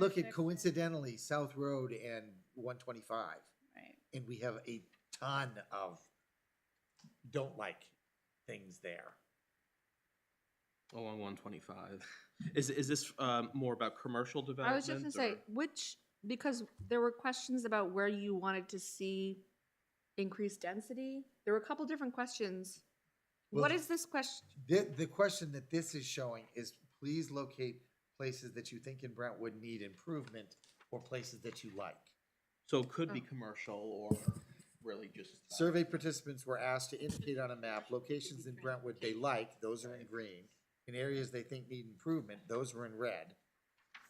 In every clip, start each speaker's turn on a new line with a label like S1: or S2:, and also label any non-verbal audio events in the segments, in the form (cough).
S1: Look at
S2: Perfect.
S1: coincidentally, South Road and one twenty-five,
S2: Right.
S1: and we have a ton of don't like things there.
S3: along Oh, one twenty-five. Is, is this, um, more about commercial
S2: I
S3: development?
S2: was just gonna say,
S3: or-
S2: which, because there were questions about where you wanted to see increased density. There were a couple different questions. What
S1: Well,
S2: is this question?
S1: The, the question that this is showing is please locate places that you think in Brentwood need improvement or places that you like.
S3: So it could be
S2: Oh.
S3: commercial or really just. uh,
S1: Survey participants were asked to indicate on a map locations in Brentwood they like, those are in green. In areas they think need improvement, those were in red.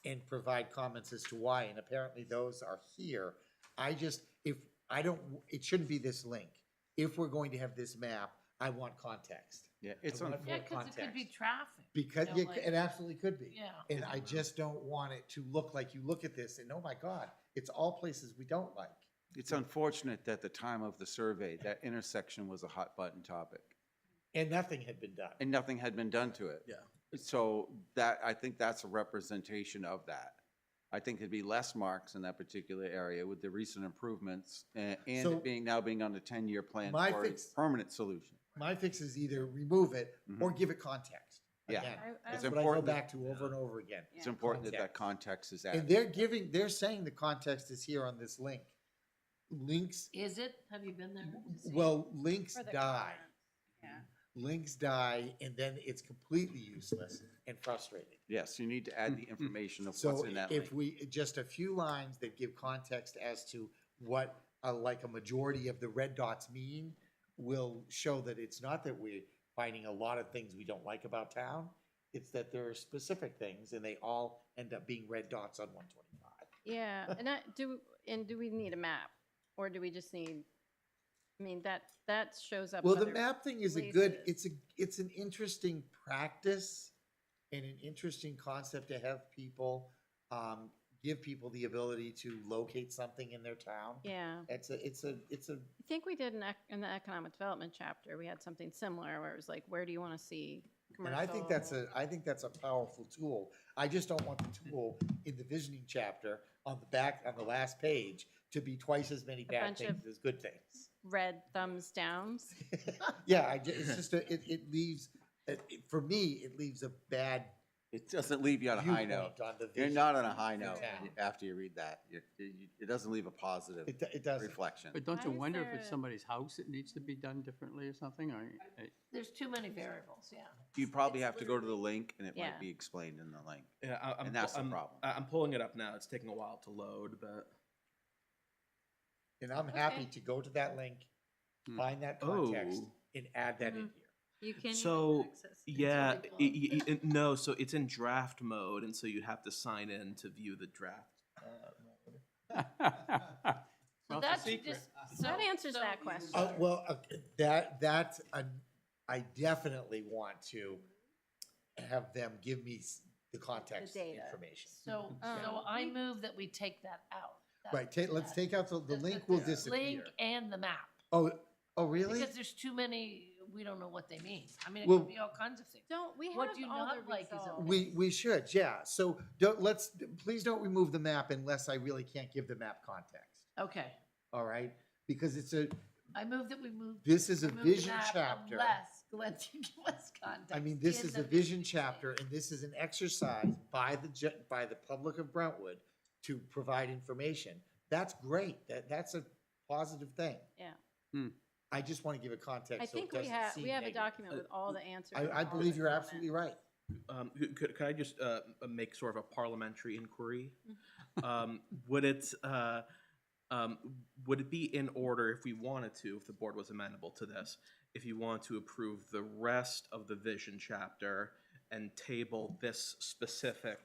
S1: And provide comments as to why, and apparently those are here. I just, if, I don't, it shouldn't be this link. If we're going to have this map, I want context.
S3: Yeah, it's
S1: I
S3: on,
S1: want
S4: Yeah,
S1: more
S4: because it could be
S1: context.
S4: traffic.
S1: Because,
S4: you know,
S1: yeah,
S4: like-
S1: it absolutely could be.
S4: Yeah.
S1: And I just don't want it to look like you look at this and, oh my God, it's all places we don't like.
S5: It's unfortunate that the time of the survey, that intersection was a hot button topic
S1: And nothing had been done.
S5: and nothing had been done to it.
S3: Yeah.
S5: So that, I think that's a representation of that. I think there'd be less marks in that particular area with the recent improvements and, and
S1: So-
S5: it being, now being on the ten-year plan
S1: My
S5: for a
S1: fix-
S5: permanent solution.
S1: My fix is either remove it or give it context.
S5: Mm-hmm. Yeah.
S1: Again,
S4: I- I-
S1: That's
S5: It's
S1: what I go
S5: important that-
S1: back to over and over again.
S5: It's important that that context is added.
S1: And they're giving, they're saying the context is here on this link. Links,
S4: Is it? Have you been there? to see it?
S1: well, links die.
S2: Yeah.
S1: Links die and then it's completely useless and frustrating.
S5: Yes, you need to add the information of what's
S1: Mm-hmm. So
S5: in that link.
S1: if we, just a few lines that give context as to what, uh, like a majority of the red dots mean will show that it's not that we're finding a lot of things we don't like about town. It's that there are specific things and they all end up being red dots on one twenty-five.
S6: Yeah, and I, do, and do we need a map, or do we just need, I mean, that, that shows up.
S1: Well, the
S6: other-
S1: map thing is a good, it's
S6: places.
S1: a, it's an interesting practice and an interesting concept to have people, um, give people the ability to locate something in their town.
S6: Yeah,
S1: It's a, it's a, it's a
S6: I think we did in, ec- in the economic development chapter, we had something similar where it was like, where do you want to see
S1: And
S6: commercial?
S1: I think that's a, I think that's a powerful tool. I just don't want the tool in the visioning chapter on the back, on the last page, to be twice as many bad
S6: bunch of-
S1: things as good things.
S6: Red thumbs downs,
S1: (laughs) Yeah, I, ju- it's just, a- it, it leaves, it- it- for me, it leaves a bad
S5: It doesn't leave you on a high
S1: viewpoint
S5: note.
S1: on the vision.
S5: You're not on a high note
S1: Yeah.
S5: after you read that. It, it it doesn't leave a positive
S1: It, do- it doesn't.
S5: reflection.
S7: But don't you
S6: Why is
S7: wonder
S6: there
S7: if it's
S6: a-
S7: somebody's house that needs to be done differently or something, or? I-
S4: There's too many variables, yeah.
S5: You probably have to go to the link and it
S6: Yeah.
S5: might be explained in the link.
S3: yeah, I- I'm,
S5: And that's
S3: pu-
S5: the
S3: I'm-
S5: problem.
S3: I- I'm pulling it up now. It's taking a while to load, but,
S1: And I'm happy
S6: Okay.
S1: to go to that link,
S7: Hmm.
S1: find that context,
S3: Oh.
S1: and add that
S6: Mm-hmm.
S1: in here.
S6: you can.
S3: so, yeah,
S4: really
S3: i- i- i- no, so it's in draft mode and so you have to sign in to view the draft. uh, mode.
S4: So
S6: (laughs)
S7: Well, it's a
S4: that's
S7: secret.
S4: just.
S1: Uh-huh.
S6: That
S4: so-
S6: answers
S4: so
S6: that
S4: you-
S6: question.
S1: Uh, well, uh, that, that's, a- I definitely want to have them give me s- the context
S6: data.
S1: information.
S4: So, so
S6: Um,
S4: I move that we take that out. That-
S1: Right, ta- let's
S4: that-
S1: take out the, the
S4: that-
S1: link
S4: that-
S1: will
S4: that
S1: disappear.
S4: Link and the map,
S1: Oh, oh, really?
S4: because there's too many, we don't know what they mean. I mean, it
S1: Well-
S4: could be all kinds of things.
S6: Don't, we have
S4: What do you
S6: all the
S4: not like is a
S6: results.
S1: We, we should, yeah. So don't, let's, please don't remove the map unless I really can't give the map context,
S4: Okay,
S1: all right? Because it's a,
S4: I move that we move.
S1: this is a
S4: remove the
S1: vision
S4: map
S1: chapter.
S4: Unless Glenn (laughs) can give us context.
S1: I mean, this
S4: and
S1: is a
S4: then we
S1: vision
S4: can say-
S1: chapter and this is an exercise by the, ju- by the public of Brentwood to provide information. That's great. That, that's a positive thing.
S6: Yeah.
S7: Hmm.
S1: I just want to give a
S6: I
S1: context so it
S6: think we
S1: doesn't
S6: have,
S1: seem
S6: we have a
S1: negative.
S6: document with all the answers. and
S1: I, I
S6: all the
S1: believe you're
S6: comments.
S1: absolutely right.
S3: Um, could- could, could I just, uh, make sort of a parliamentary inquiry? Um, would it, uh, um, would it be in order if we wanted to, if the board was amenable to this, if you want to approve the rest of the vision chapter and table this specific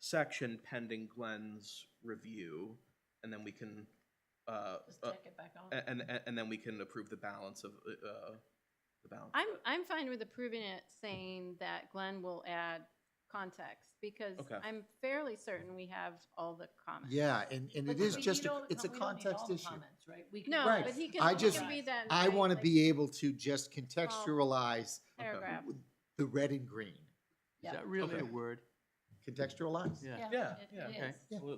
S3: section pending Glenn's review, and then we can, uh,
S4: Just
S3: uh,
S4: take it back on.
S3: and, and, and then we can approve the balance of, uh, the balance.
S6: I'm, I'm fine with approving it, saying that Glenn will add context, because
S3: Okay.
S6: I'm fairly certain we have all the comments.
S1: Yeah, and, and
S4: But
S1: it
S4: we-
S1: is
S4: you
S1: just, a-
S4: don't-
S1: it's a
S4: we don't need all
S1: context
S4: the
S1: issue.
S4: comments, right? We can-
S6: No,
S1: Right.
S6: but he
S1: I
S6: can, he
S1: just-
S6: can read that. in
S1: I
S6: writing,
S1: want to
S6: like,
S1: be able to just contextualize uh,
S6: Paragraph.
S1: the red and green.
S7: (laughs) Is
S4: Yeah.
S7: that really a
S3: Okay.
S7: word?
S8: contextualize.
S1: yeah.
S3: Yeah,
S9: It
S3: yeah.
S9: is.
S1: Okay.
S3: Absolutely.